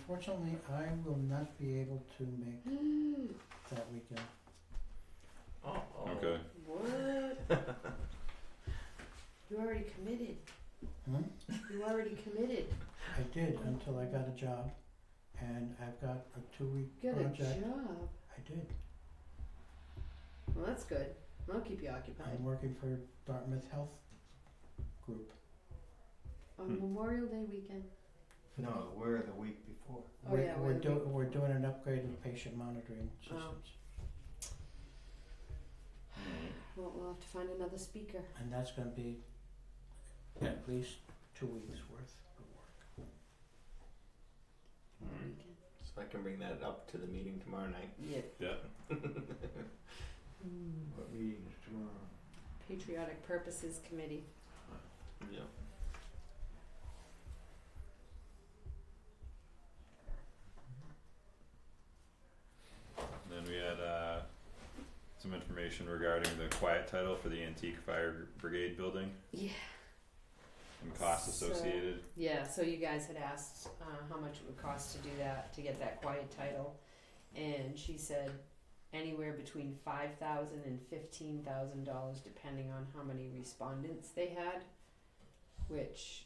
Unfortunately, I will not be able to make that weekend. Oh, oh. Okay. What? You already committed. Hmm? You already committed. I did until I got a job, and I've got a two-week Get a project. job. I did. Well, that's good. That'll keep you occupied. I'm working for Dartmouth Health Group. On Memorial Day weekend. No, we're the week before. Oh, we're yeah, we're, we're- do- we're doing an upgrade of patient monitoring Oh. systems, Well, we'll have to find another speaker. and that's going to be at least two weeks worth of work. Hmm. Alright. Weekend. So I can bring that up to the meeting tomorrow night. Yeah. Yeah. What meeting is tomorrow? Hmm. Patriotic Purposes Committee. Yeah. Then we had uh some information regarding the quiet title for the antique fire brigade building Yeah. and costs So- associated. Yeah, so you guys had asked uh, how much it would cost to do that, to get that quiet title. And she said anywhere between five thousand and fifteen thousand dollars depending on how many respondents they had, which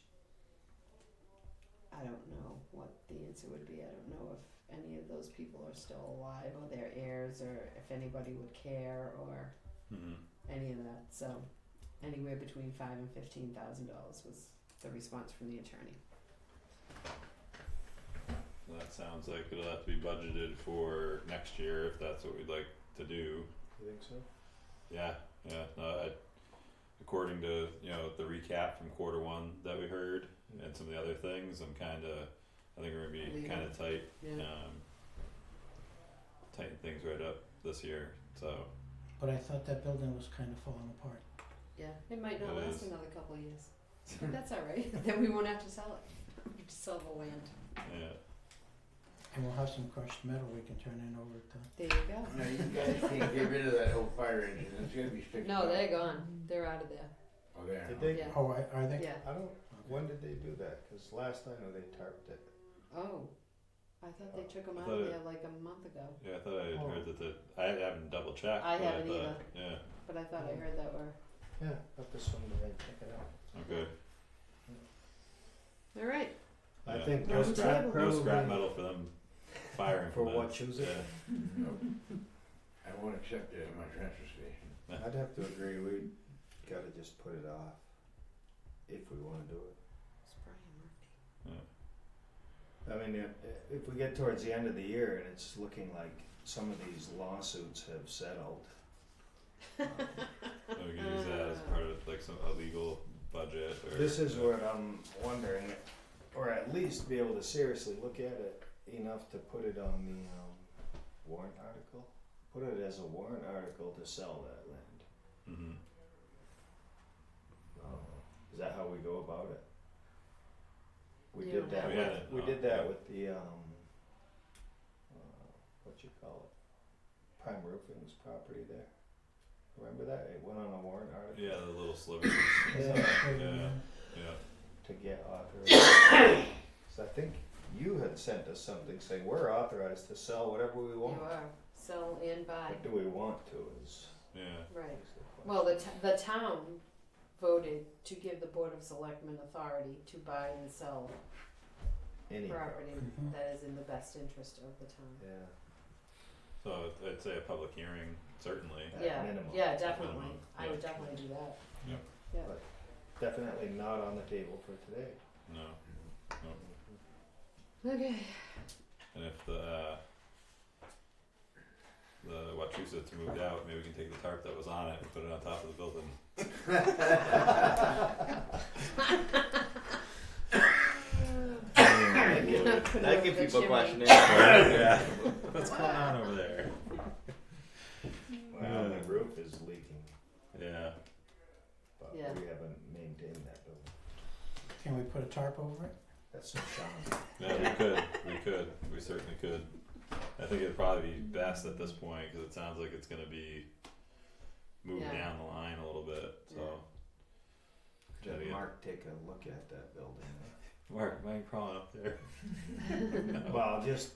I don't know what the answer would be. I don't know if any of those people are still alive or their heirs or if anybody would care or Mhm. any of that. So anywhere between five and fifteen thousand dollars was the response from the attorney. Well, That sounds like it'll have to be budgeted for next year if that's what we'd like to do. You think so? Yeah, yeah, no, I, according to, you know, the recap from quarter one that we heard and some of the other things, I'm kinda, I think we're gonna be Leaving. kinda tight, Yeah. um, tighten things right up this year, so, But I thought that building was kind of falling apart. Yeah, it might not It last is. another couple of years. But that's all right. then we won't have to sell it. We just sell the land. yeah. And we'll have some crushed metal we can turn in over at the There you go. No, you guys can't get rid of that whole fire engine. It's gonna be fixed. No, up. they're gone. They're out of there. Oh, there. Did they? Yeah. Oh, are, are they? Yeah. I don't. When did they do that? Because last I know they tarped it. Oh, I thought they took them I out thought of it- there like a month ago. Yeah, I thought I had Oh. heard that the, I haven't double checked, I but I haven't thought, yeah, But I thought I heard that were Yeah, up this one they took it out. okay, all right. I Yeah. think No those scrap- guys no probably- scrap metal for them firing For from that. what, choose it? Nope. I won't accept it at my transfer station. I'd have to agree. We gotta just put it off if we want to do it. It's Brian I mean, if, if we get towards the end of the year and it's looking like some of these lawsuits have settled, um, Yeah, we can use that as Uh. part of like some, a legal budget or. This is what I'm wondering, or at least be able to seriously look at it enough to put it on the um, warrant article. Put it as a warrant article to sell that land. hmm Oh, Is that how we go about it? We You did don't that. have We with, had it, we uh, did that yeah. with the um, uh, what you call it, Prime Roofing's property there. Remember that? It went on a warrant article Yeah, the little slivers. Yeah. Yeah. Yeah. to get authorized. So I think you had sent us something saying we're authorized to sell whatever we Murphy. want. You are sell and buy. What do we want to is, Yeah. Right. is the question. Well, the, t- the town voted to give the Board of Selectmen authority to buy and sell Any property Mhm. that is in the best interest of the town. Yeah. So I'd say a public hearing, certainly. At Yeah, minimum. yeah, definitely. minimum, I would yeah. definitely do that. Yep. Yeah. But- Definitely not on the table for today. No. Okay. And if the uh, the Wachusett's moved out, maybe we can take the tarp that was on it and put it on top of the building. That gives people questioning. yeah. What's going on over there? Well, Yeah. the roof is leaking, Yeah. but we Yeah. haven't maintained that building. Can we put a tarp over it? That's some shine. Yeah, we could. We could. We certainly could. I think it'd probably be best at this point because it sounds like it's gonna be moved Yeah. down the line a little bit. So. Did Yeah. Mark take a look at that building? Mark, why are you crawling up there? Well, just